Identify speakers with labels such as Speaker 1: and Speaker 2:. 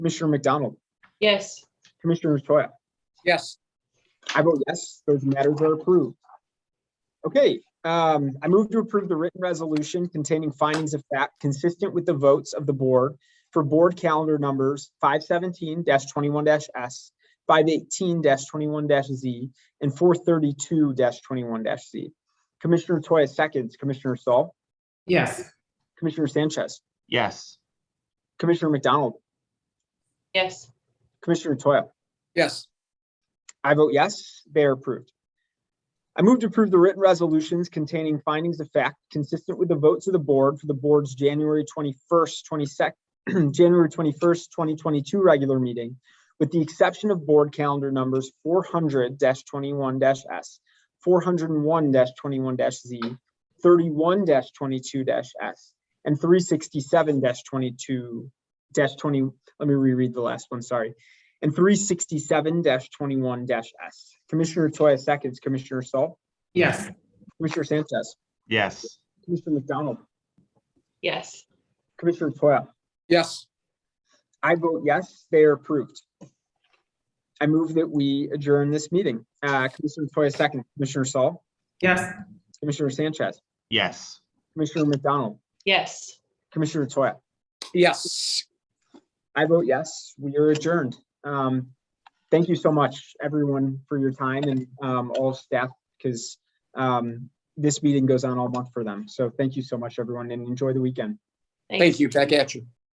Speaker 1: Commissioner McDonald,
Speaker 2: Yes.
Speaker 1: Commissioner Toya.
Speaker 3: Yes.
Speaker 1: I vote yes, those matters are approved. Okay, um, I move to approve the written resolution containing findings of fact consistent with the votes of the board for board calendar numbers five seventeen twenty-one S, five eighteen twenty-one Z, and four thirty-two twenty-one Z. Commissioner Toya seconds, Commissioner Saul,
Speaker 4: yes,
Speaker 1: Commissioner Sanchez,
Speaker 5: yes,
Speaker 1: Commissioner McDonald,
Speaker 2: Yes.
Speaker 1: Commissioner Toya.
Speaker 3: Yes.
Speaker 1: I vote yes, they are approved. I move to approve the written resolutions containing findings of fact consistent with the votes of the board for the board's January twenty-first, twenty-second, January twenty-first, twenty twenty-two regular meeting, with the exception of board calendar numbers four hundred twenty-one S, four hundred and one twenty-one Z, thirty-one twenty-two S, and three sixty-seven twenty-two twenty, let me reread the last one, sorry and three sixty-seven twenty-one S. Commissioner Toya seconds, Commissioner Saul,
Speaker 4: yes,
Speaker 1: Commissioner Sanchez,
Speaker 5: yes,
Speaker 1: Commissioner McDonald,
Speaker 2: Yes.
Speaker 1: Commissioner Toya.
Speaker 3: Yes.
Speaker 1: I vote yes, they are approved. I move that we adjourn this meeting. Uh, Commissioner Toya seconds, Commissioner Saul,
Speaker 4: yes,
Speaker 1: Commissioner Sanchez,
Speaker 5: yes.
Speaker 1: Commissioner McDonald,
Speaker 2: Yes.
Speaker 1: Commissioner Toya.
Speaker 3: Yes.
Speaker 1: I vote yes, we are adjourned. Um, thank you so much, everyone, for your time and, um, all staff, because, um, this meeting goes on all month for them. So thank you so much, everyone, and enjoy the weekend.
Speaker 3: Thank you. Back at you.